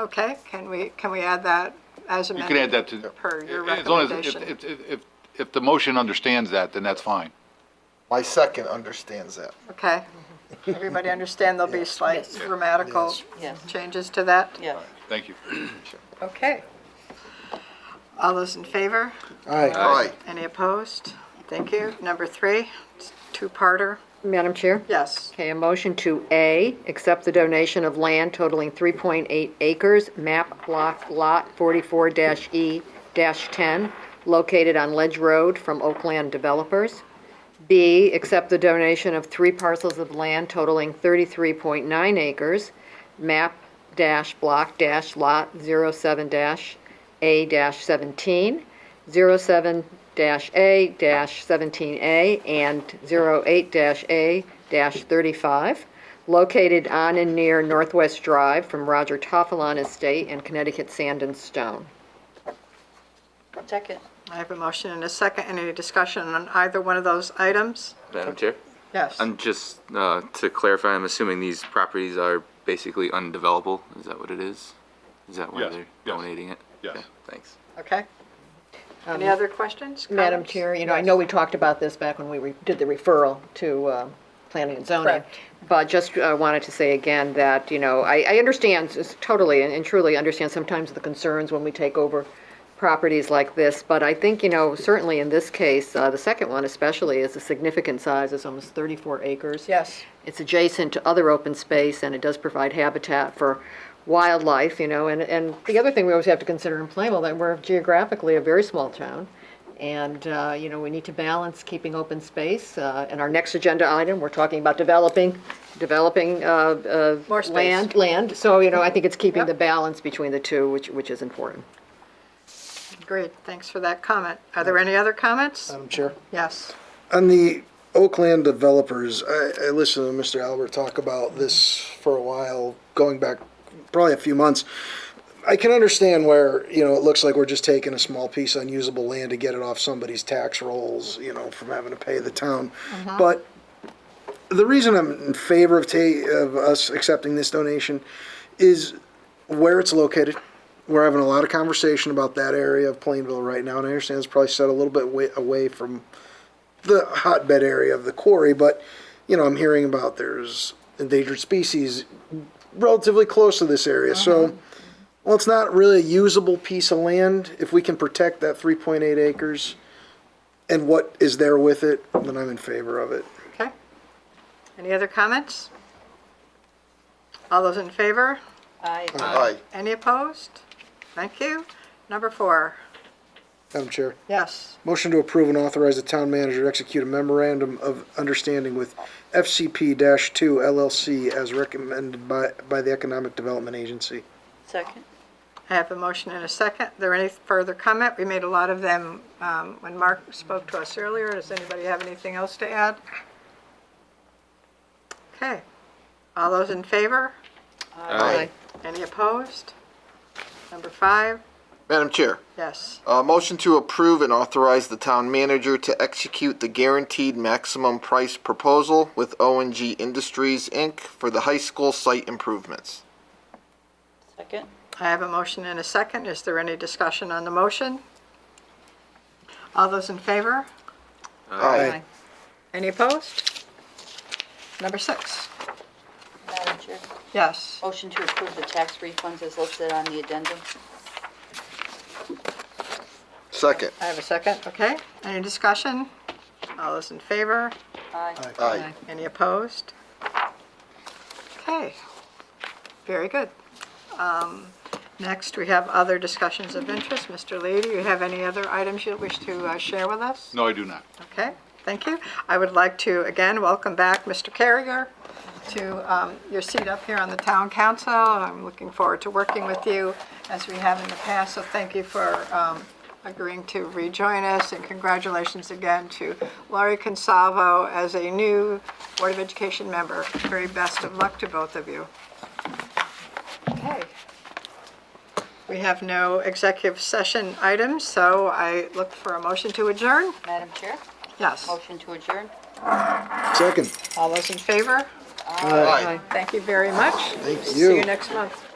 Okay, can we, can we add that as You amended? can add that to. Uh, Per your as long as- if- recommendation. If, if, if, if the motion understands that, then that's fine. My second understands that. Okay. Everybody understand there'll be slight grammatical Yes. changes to that? Yes. Thank you. Okay. All those in favor? All right. Any opposed? Thank you. Number three, it's two-parter. Madam Chair? Yes. Okay, a motion to A, accept the donation of land totaling 3.8 acres, map block lot 44-E-10, located on Ledge Road from Oakland Developers. B, accept the donation of three parcels of land totaling 33.9 acres, map dash block dash lot 07 dash A dash 17, 07 dash A dash 17A, and 08 dash A dash 35, located on and near Northwest Drive from Roger Toffelon Estate and Connecticut Sand and Stone. Second. I have a motion and a second. Any discussion on either one of those items? Madam Chair? Yes. And just uh, to clarify, I'm assuming these properties are basically undevelopable? Is that what it is? Is that why Yes, they're yes, donating it? yes. Okay, Thanks. Okay. Any other questions? Um, Madam comments? Chair, you know, I know we talked about this back when we re- did the referral to uh, planning and zoning. Correct. But just uh, wanted to say again that, you know, I, I understand s- totally and and truly understand sometimes the concerns when we take over properties like this. But I think, you know, certainly in this case, uh, the second one especially is a significant size, it's almost 34 acres. Yes. It's adjacent to other open space, and it does provide habitat for wildlife, you know, and, and the other thing we always have to consider in Plainville, that we're geographically a very small town, and, uh, you know, we need to balance keeping open space, uh, and our next agenda item, we're talking about developing, developing, uh, uh, More space. Land, land, so, you know, I think it's keeping Yep. the balance between the two, which, which is important. Great, thanks for that comment. Are there any other comments? Um, Madam Chair. Yes. On the Oakland developers, I, I listened to Mr. Albert talk about this for a while, going back probably a few months. I can understand where, you know, it looks like we're just taking a small piece of unusable land to get it off somebody's tax rolls, you know, from having to pay the town. But the reason I'm in favor of ta- of us accepting this donation is where it's located. We're having a lot of conversation about that area of Plainville right now, and I understand it's probably set a little bit wa- away from the hotbed area of the quarry, but you know, I'm hearing about there's endangered species relatively close to this area. So, well, it's not really a usable piece of land. If we can protect that 3.8 acres and what is there with it, then I'm in favor of it. Okay. Any other comments? All those in favor? Aye. Aye. Any opposed? Thank you. Number four, Madam Chair, yes. motion to approve and authorize the town manager to execute a memorandum of understanding with FCP-2 LLC as recommended by, by the Economic Development Agency. Second. I have a motion and a second. There any further comment? We made a lot of them um, when Mark spoke to us earlier. Does anybody have anything else to add? Okay. All those in favor? Aye. Any opposed? Number five, Madam Chair, yes. uh, motion to approve and authorize the town manager to execute the guaranteed maximum price proposal with O and G Industries, Inc. for the high school site improvements. Second. I have a motion and a second. Is there any discussion on the motion? All those in favor? Aye. Any opposed? Number six, Madam Chair, yes. motion to approve the tax refunds as listed on the addendum. Second. I have a second, okay. Any discussion? All those in favor? Aye. Aye. Any opposed? Okay, very good. Um, Next, we have other discussions of interest. Mr. Lee, do you have any other items you wish to uh, share with us? No, I do not. Okay, thank you. I would like to again welcome back Mr. Carrier to um, your seat up here on the town council. I'm looking forward to working with you as we have in the past, so thank you for um, agreeing to rejoin us, and congratulations again to Laurie Consalvo as a new Board of Education member. Very best of luck to both of you. Okay. We have no executive session items, so I look for a motion to adjourn. Madam Chair, Yes. motion to adjourn. Second. All those in favor? Aye. Thank you very much. Thank See you you. next month.